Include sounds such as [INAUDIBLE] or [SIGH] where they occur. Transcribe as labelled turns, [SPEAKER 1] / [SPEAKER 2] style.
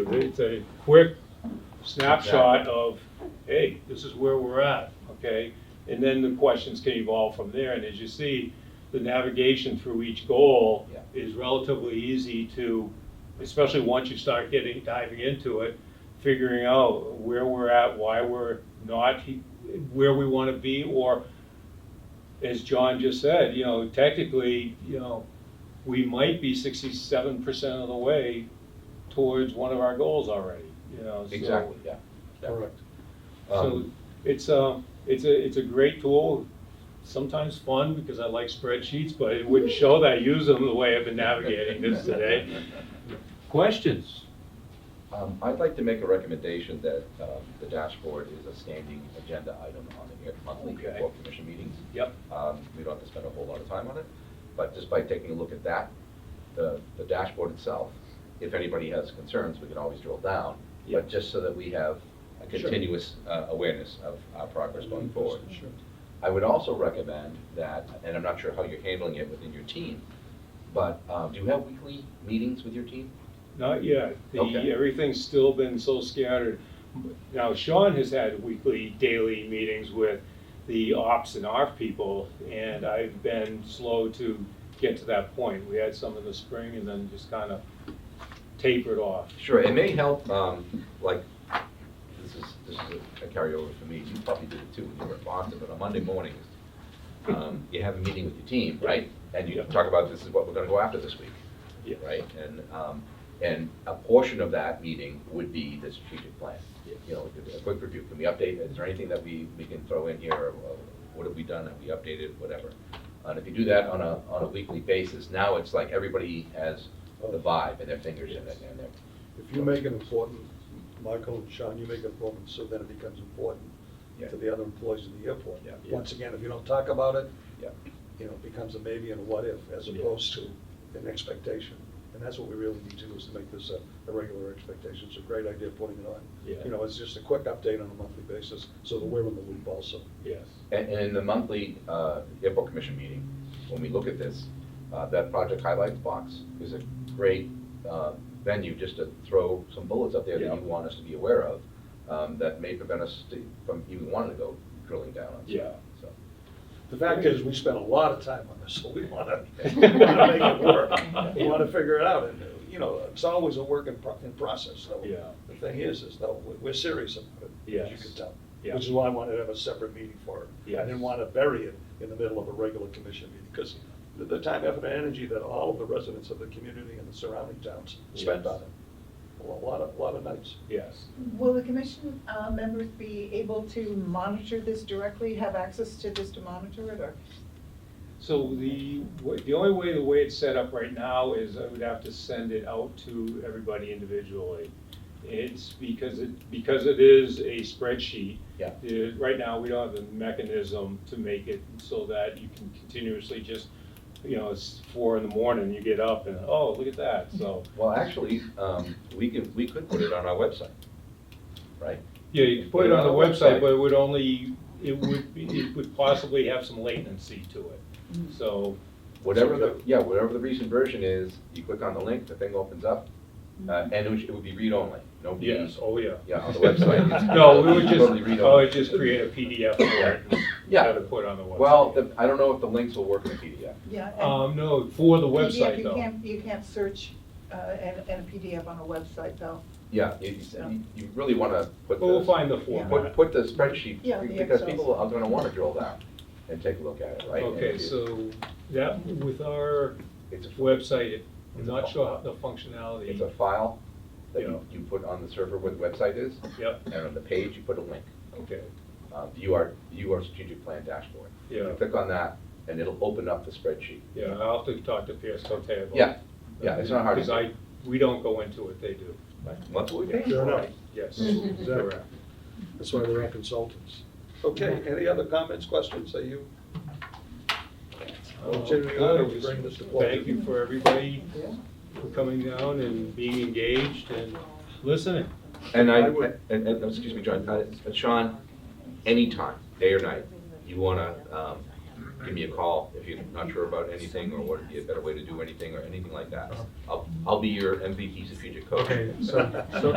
[SPEAKER 1] It- It's a quick snapshot of, hey, this is where we're at, okay? And then the questions can evolve from there, and as you see, the navigation through each goal
[SPEAKER 2] Yeah.
[SPEAKER 1] is relatively easy to, especially once you start getting, diving into it, figuring out where we're at, why we're not he- where we want to be, or as John just said, you know, technically, you know, we might be sixty-seven percent of the way towards one of our goals already, you know, so.
[SPEAKER 2] Exactly, yeah. yeah.
[SPEAKER 3] Correct.
[SPEAKER 1] So
[SPEAKER 2] Um,
[SPEAKER 1] it's a, it's a, it's a great tool, sometimes fun because I like spreadsheets, but it wouldn't show that I use them the way I've been navigating this today.
[SPEAKER 2] [LAUGHS]
[SPEAKER 1] Questions?
[SPEAKER 2] Um, I'd like to make a recommendation that um, the dashboard is a standing agenda item on the monthly
[SPEAKER 1] Okay.
[SPEAKER 2] board commission meetings.
[SPEAKER 1] Yep.
[SPEAKER 2] Um, We don't have to spend a whole lot of time on it, but just by taking a look at that, the the dashboard itself, if anybody has concerns, we can always drill down,
[SPEAKER 1] Yeah.
[SPEAKER 2] but just so that we have a
[SPEAKER 3] Sure. Mm-hmm.
[SPEAKER 2] continuous uh, awareness of our progress going forward.
[SPEAKER 3] Sure.
[SPEAKER 2] I would also recommend that, and I'm not sure how you're handling it within your team, but um, do you have weekly meetings with your team?
[SPEAKER 1] Not yet. The,
[SPEAKER 2] Okay.
[SPEAKER 1] everything's still been so scattered. Now Sean has had weekly, daily meetings with the ops and ARF people, and I've been slow to get to that point. We had some in the spring and then just kind of tapered off.
[SPEAKER 2] Sure, it may help, um, like, this is, this is a carryover for me, you probably did it too when you were in Boston, but on Monday mornings, um, you have a meeting with your team, right? And you talk about this is what we're gonna go after this week,
[SPEAKER 1] Yes.
[SPEAKER 2] right? And, um, and a portion of that meeting would be the strategic plan. You know, a quick review, can we update, is there anything that we, we can throw in here, or uh, what have we done, have we updated, whatever? And if you do that on a, on a weekly basis, now it's like everybody has the vibe and their fingers in it, and their
[SPEAKER 3] If you make an important, Michael and Sean, you make it important, so then it becomes important
[SPEAKER 2] Yeah.
[SPEAKER 3] to the other employees in the airport.
[SPEAKER 2] Yeah.
[SPEAKER 3] Once again, if you don't talk about it,
[SPEAKER 2] Yeah.
[SPEAKER 3] you know, it becomes a maybe and a what if, as
[SPEAKER 1] Yeah.
[SPEAKER 3] opposed to an expectation. And that's what we really need to do, is to make this a, a regular expectation. It's a great idea putting it on.
[SPEAKER 1] Yeah.
[SPEAKER 3] You know, it's just a quick update on a monthly basis, so that we're in the loop also.
[SPEAKER 1] Yes.
[SPEAKER 2] And, and in the monthly, uh, airport commission meeting, when we look at this, uh, that project highlights box is a great, uh, venue just to throw some bullets up there that
[SPEAKER 1] Yeah.
[SPEAKER 2] you want us to be aware of, um, that may prevent us to- from even wanting to go drilling down on
[SPEAKER 1] Yeah.
[SPEAKER 2] stuff, so.
[SPEAKER 3] The fact is, we spent a lot of time on this, so [LAUGHS] we want to
[SPEAKER 2] Yeah.
[SPEAKER 3] make it work. We want to figure it out, and, uh, you know, it's always a work in pro- in process, though.
[SPEAKER 1] Yeah.
[SPEAKER 3] The thing is, is though, we- we're serious about it, as you
[SPEAKER 1] Yes.
[SPEAKER 3] can tell.
[SPEAKER 1] Yeah.
[SPEAKER 3] Which is why I wanted to have a separate meeting for it. I
[SPEAKER 1] Yes.
[SPEAKER 3] didn't want to bury it in the middle of a regular commission meeting, because the, the time, effort, and energy that all of the residents of the community and the surrounding towns spent
[SPEAKER 1] Yes.
[SPEAKER 3] on it. A lo- lot of, lot of nights.
[SPEAKER 1] Yes.
[SPEAKER 4] Will the commission uh, members be able to monitor this directly, have access to this to monitor it, or?
[SPEAKER 1] So the, wa- the only way, the way it's set up right now is I would have to send it out to everybody individually. It's because it, because it is a spreadsheet.
[SPEAKER 2] Yeah.
[SPEAKER 1] the- Right now, we don't have the mechanism to make it so that you can continuously just, you know, it's four in the morning, you get up and, oh, look at that, so.
[SPEAKER 2] Well, actually, um, we could, we could put it on our website, right?
[SPEAKER 1] [LAUGHS] Yeah, you could put it on the website, but it would only, it would, be- it would possibly have some latency to it. So,
[SPEAKER 2] Whatever the, yeah, whatever the recent version is, you click on the link, the thing opens up, uh, and it would- it would be read-only, no views,
[SPEAKER 1] yes, oh, Mm-hmm. yeah.
[SPEAKER 2] Yeah, on
[SPEAKER 1] [LAUGHS]
[SPEAKER 2] the website. it's-
[SPEAKER 1] No, we would
[SPEAKER 2] Totally
[SPEAKER 1] just,
[SPEAKER 2] read
[SPEAKER 1] I
[SPEAKER 2] all.
[SPEAKER 1] would just create a PDF for it and
[SPEAKER 2] Yeah.
[SPEAKER 1] have it put on the website.
[SPEAKER 2] Well, the- I don't know if the links will work in the PDF.
[SPEAKER 4] Yeah. and
[SPEAKER 1] Um, no, for the
[SPEAKER 4] PDF,
[SPEAKER 1] website
[SPEAKER 4] you
[SPEAKER 1] though.
[SPEAKER 4] can't- You can't search uh, and and a PDF on a website, though.
[SPEAKER 2] Yeah, you, you- you really want to put
[SPEAKER 1] But we'll
[SPEAKER 2] the,
[SPEAKER 1] find the
[SPEAKER 2] put,
[SPEAKER 1] format.
[SPEAKER 2] put the spreadsheet,
[SPEAKER 4] Yeah, the
[SPEAKER 2] because
[SPEAKER 4] Excel.
[SPEAKER 2] people are going to want to drill down and take a look at it, right? And
[SPEAKER 1] Okay,
[SPEAKER 2] it-
[SPEAKER 1] so that, with our
[SPEAKER 2] It's a,
[SPEAKER 1] website, it- I'm not sure how the functionality.
[SPEAKER 2] it's a file that
[SPEAKER 1] Yeah.
[SPEAKER 2] you, you put on the server where the website is,
[SPEAKER 1] Yep,
[SPEAKER 2] and on the page, you put a link,
[SPEAKER 1] okay,
[SPEAKER 2] uh, view our, view our strategic plan dashboard. You
[SPEAKER 1] yeah,
[SPEAKER 2] Click on that, and it'll open up the spreadsheet.
[SPEAKER 1] yeah, I'll have to talk to Pierce Cote about.
[SPEAKER 2] Yeah, yeah, it's not hard to
[SPEAKER 1] Because I, we don't go into it, they do,
[SPEAKER 2] That's what we paid
[SPEAKER 3] Fair
[SPEAKER 2] for,
[SPEAKER 3] enough.
[SPEAKER 2] right?
[SPEAKER 1] yes.
[SPEAKER 3] Mhm.
[SPEAKER 1] Correct.
[SPEAKER 3] That's why we're all consultants. Okay, any other comments, questions, are you? Well, Jimmy, why don't we bring this to closure?
[SPEAKER 1] Thank you for everybody for coming down and being engaged and listening.
[SPEAKER 2] And I,
[SPEAKER 3] I would-
[SPEAKER 2] and, and, excuse me, John, uh, Sean, anytime, day or night, you wanna, um, give me a call if you're not sure about anything or what would be a better way to do anything or anything like that. I'll, I'll be your MVP strategic coach.
[SPEAKER 5] Okay, so, so